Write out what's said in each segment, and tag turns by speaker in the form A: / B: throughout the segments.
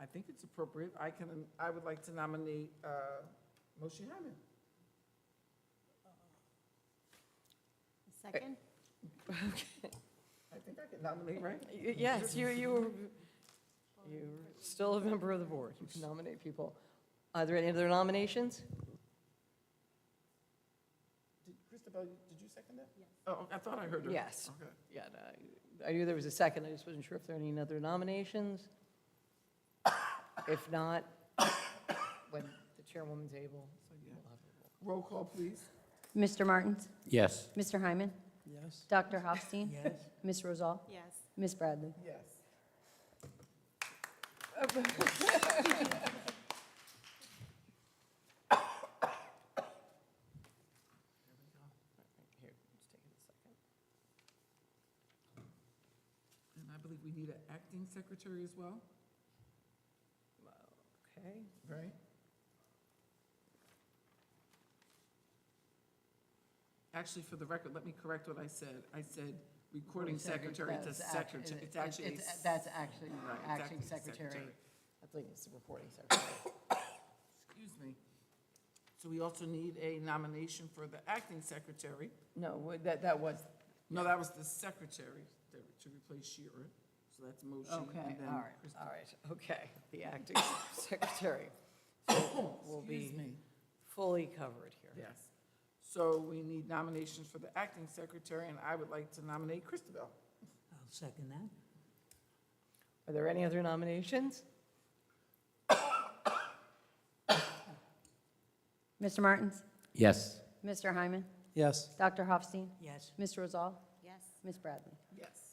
A: I think it's appropriate. I can, I would like to nominate uh, Moshe Hyman.
B: Second?
A: I think I can nominate, right?
C: Y- Yes, you, you, were- you're still a member of the board. You can nominate people. Are there any other nominations?
A: Did- Christabel, did you second that?
B: Yes.
A: Oh, I thought I heard her.
C: Yes.
A: Okay.
C: Yeah, no, I I knew there was a second. I just wasn't sure if there are any other nominations. If not, when the chairwoman's able, we'll have a roll.
A: Roll call, please.
D: Mr. Martins?
E: Yes.
D: Mr. Hyman?
C: Yes.
D: Dr. Hofstein? Ms. Rosal?
B: Yes.
D: Ms. Bradley?
A: Yes.
C: Here, just take a second.
A: And I believe we need an acting secretary as well,
C: Okay.
A: right? Actually, for the record, let me correct what I said. I said recording secretary to
C: That's act- uh,
A: secretary. It's actually.
C: it's- That's actually,
A: Right, it's
C: acting
A: acting
C: secretary.
A: secretary.
C: I think it's the reporting secretary.
A: Excuse me. So we also need a nomination for the acting secretary.
C: No, wa- that, that was,
A: No, that was the secretary that- to replace Sheeran. So that's motion. and
C: okay,
A: then
C: all right,
A: Christi-
C: all right, okay. The acting secretary will be
A: Excuse me.
C: fully covered here.
A: Yes. So we need nominations for the acting secretary, and I would like to nominate Christabel.
F: I'll second that.
C: Are there any other nominations?
D: Mr. Martins?
E: Yes.
D: Mr. Hyman?
E: Yes.
D: Dr. Hofstein?
F: Yes.
D: Ms. Rosal?
B: Yes.
D: Ms. Bradley?
A: Yes.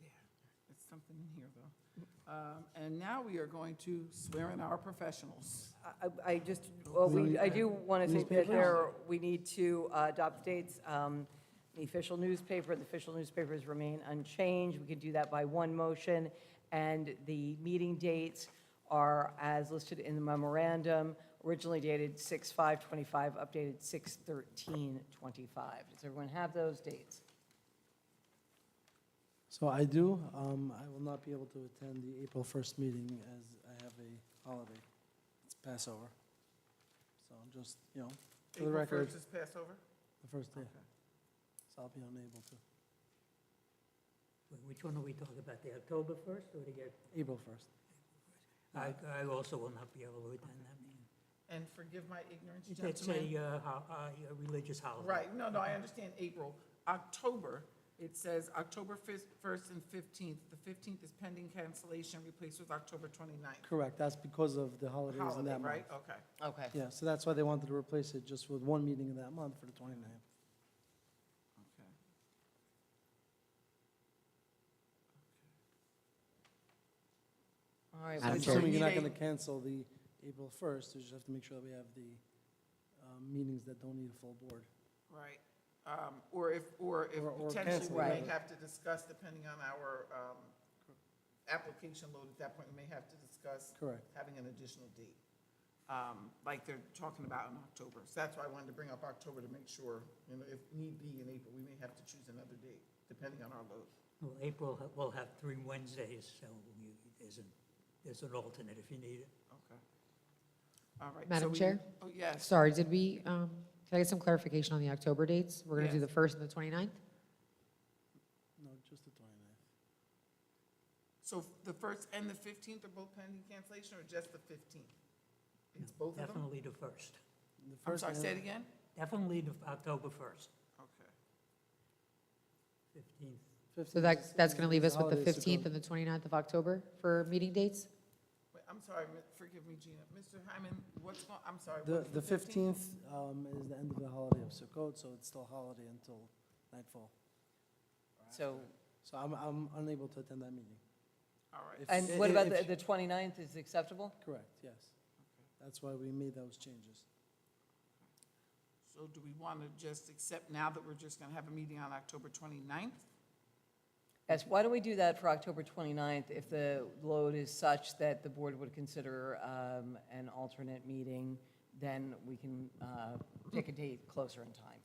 A: Yeah, It's something in here, though. Um, And now we are going to swear in our professionals.
C: I- I I just, well, we, I do want to think that there, we need to uh, adopt dates. Um, The official newspaper, the official newspapers remain unchanged. We could do that by one motion. And the meeting dates are as listed in the memorandum, originally dated 6/5/25, updated 6/13/25. Does everyone have those dates?
G: So I do. Um, I will not be able to attend the April 1st meeting as I have a holiday. It's Passover. So I'm just, you know, For the
A: April
G: record.
A: 1st is Passover?
G: the first day,
A: Okay.
G: so I'll be unable to.
F: Wh- Which one are we talking about, the October 1st or the,
G: April 1st.
F: I, I also will not be able to attend that meeting.
A: And forgive my ignorance,
F: That's
A: gentlemen.
F: a, uh, ho- a religious holiday.
A: Right, no, no, I understand April. October, it says October 1st and 15th. The 15th is pending cancellation, replaced with October 29th.
G: Correct. That's because of the holidays in
A: Holiday,
G: that month.
A: right? Okay.
C: Okay.
G: Yeah, so that's why they wanted to replace it just with one meeting in that month for the 29th.
A: Okay.
C: All right.
G: I'm
E: Madam
C: well,
E: Chair.
G: assuming you're not
A: Need a-
G: going to cancel the April 1st, you just have to make sure that we have the um, meetings that don't need a full board.
A: Right, um, or if, or if
G: Or- or
A: potentially
G: cancel
A: we may
C: it.
A: have to discuss, depending on our, um, application load at that point, we may have to discuss
G: Correct.
A: having an additional date, um, like they're talking about in October. So that's why I wanted to bring up October to make sure, you know, if need be in April, we may have to choose another date, depending on our load.
F: Well, April, ha- we'll have three Wednesdays, so you- there's an, there's an alternate if you need it.
A: Okay. All right. so
H: Madam
A: we-
H: Chair?
A: Oh, yes.
H: Sorry, did we, um, can I get some clarification on the October dates? We're going to do
A: Yes.
H: the 1st and the 29th?
G: No, just the 29th.
A: So the first and the fifteenth are both pending cancellation, or just the fifteenth? It's both of them?
F: Definitely the 1st.
G: The
A: I'm
G: first
A: sorry,
G: and-
A: say it again?
F: Definitely the October 1st,
A: Okay.
F: 15th.
G: 15th
H: So
G: is
H: that, that's going to leave us with
G: holiday,
H: the
G: so
H: 15th
G: go-
H: and the 29th of October for meeting dates?
A: Wait, I'm sorry, mi- forgive me, Gina. Mr. Hyman, what's going, I'm sorry.
G: The,
A: what's
G: the 15th um, is the end of the holiday of Sukkot, so it's still holiday until nightfall.
C: So,
G: So I'm, I'm unable to attend that meeting.
A: All right,
G: If-
C: and
G: i-
C: what
G: i-
C: about
G: if-
C: the the 29th is acceptable?
G: Correct, yes. That's why we made those changes.
A: so do we want to just accept now that we're just going to have a meeting on October 29th?
C: Yes, why don't we do that for October 29th if the load is such that the board would consider um, an alternate meeting, then we can uh, pick a date closer in time.